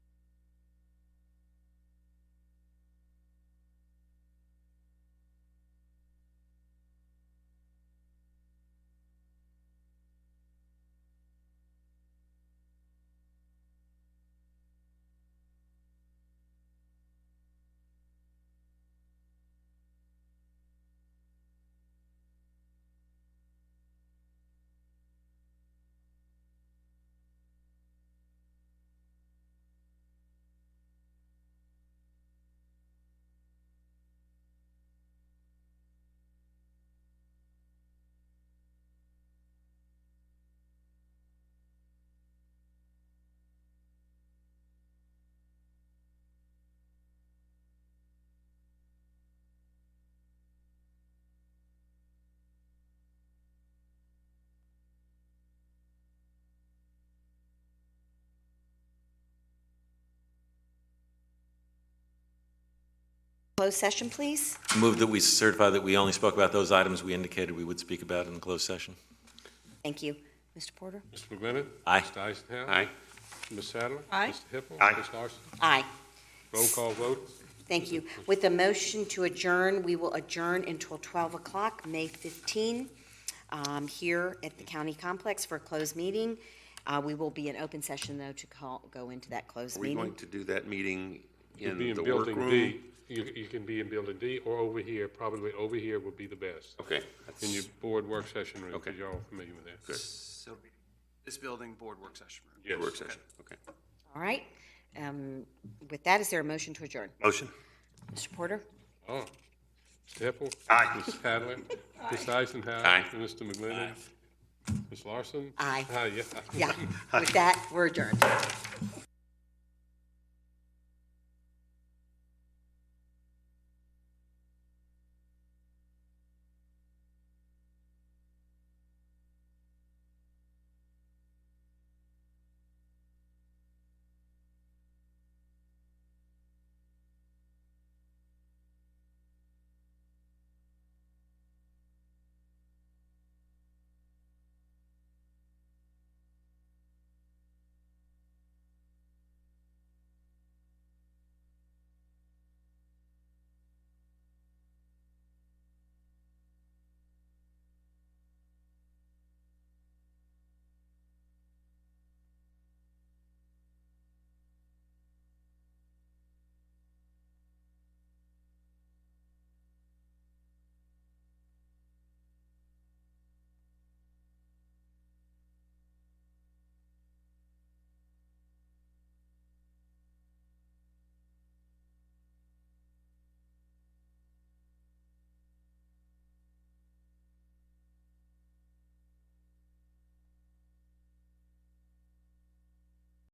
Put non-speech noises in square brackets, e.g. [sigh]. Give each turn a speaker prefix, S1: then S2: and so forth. S1: closed session, please?
S2: Move that we certify that we only spoke about those items we indicated we would speak about in closed session.
S1: Thank you. Mr. Porter?
S3: Mr. McGlinnan.
S2: Aye.
S3: Mr. Eisenhower.
S4: Aye.
S3: Ms. Sadler.
S5: Aye.
S3: Mr. Hippel.
S4: Aye.
S3: Ms. Larson.
S1: Aye.
S3: Roll call vote.
S1: Thank you. With the motion to adjourn, we will adjourn until 12 o'clock, May 15, um, here at the county complex for a closed meeting. Uh, We will be in open session, though, to call, go into that closed
S4: Are we going
S1: meeting.
S4: to do that meeting
S3: You'll
S4: in
S3: be in
S4: the workroom?
S3: Building D. You, you can be in Building D or over here, probably over here would be the best.
S4: Okay.
S3: In your board work session room,
S4: Okay.
S3: because you're all familiar with that.
S6: So this building, board work session room.
S3: Yes.
S4: Work session, okay.
S1: All right. Um, With that, is there a motion to adjourn?
S4: Motion?
S1: Mr.
S4: [laughs]
S1: Porter?
S3: Oh. Mr. Hippel.
S4: Aye.
S3: Ms. Sadler. Ms. Eisenhower.
S4: Aye.
S3: And Mr. McGlinnan. Ms. Larson.
S1: Aye.
S3: Aye, yeah.
S1: Yeah. With that, we're adjourned.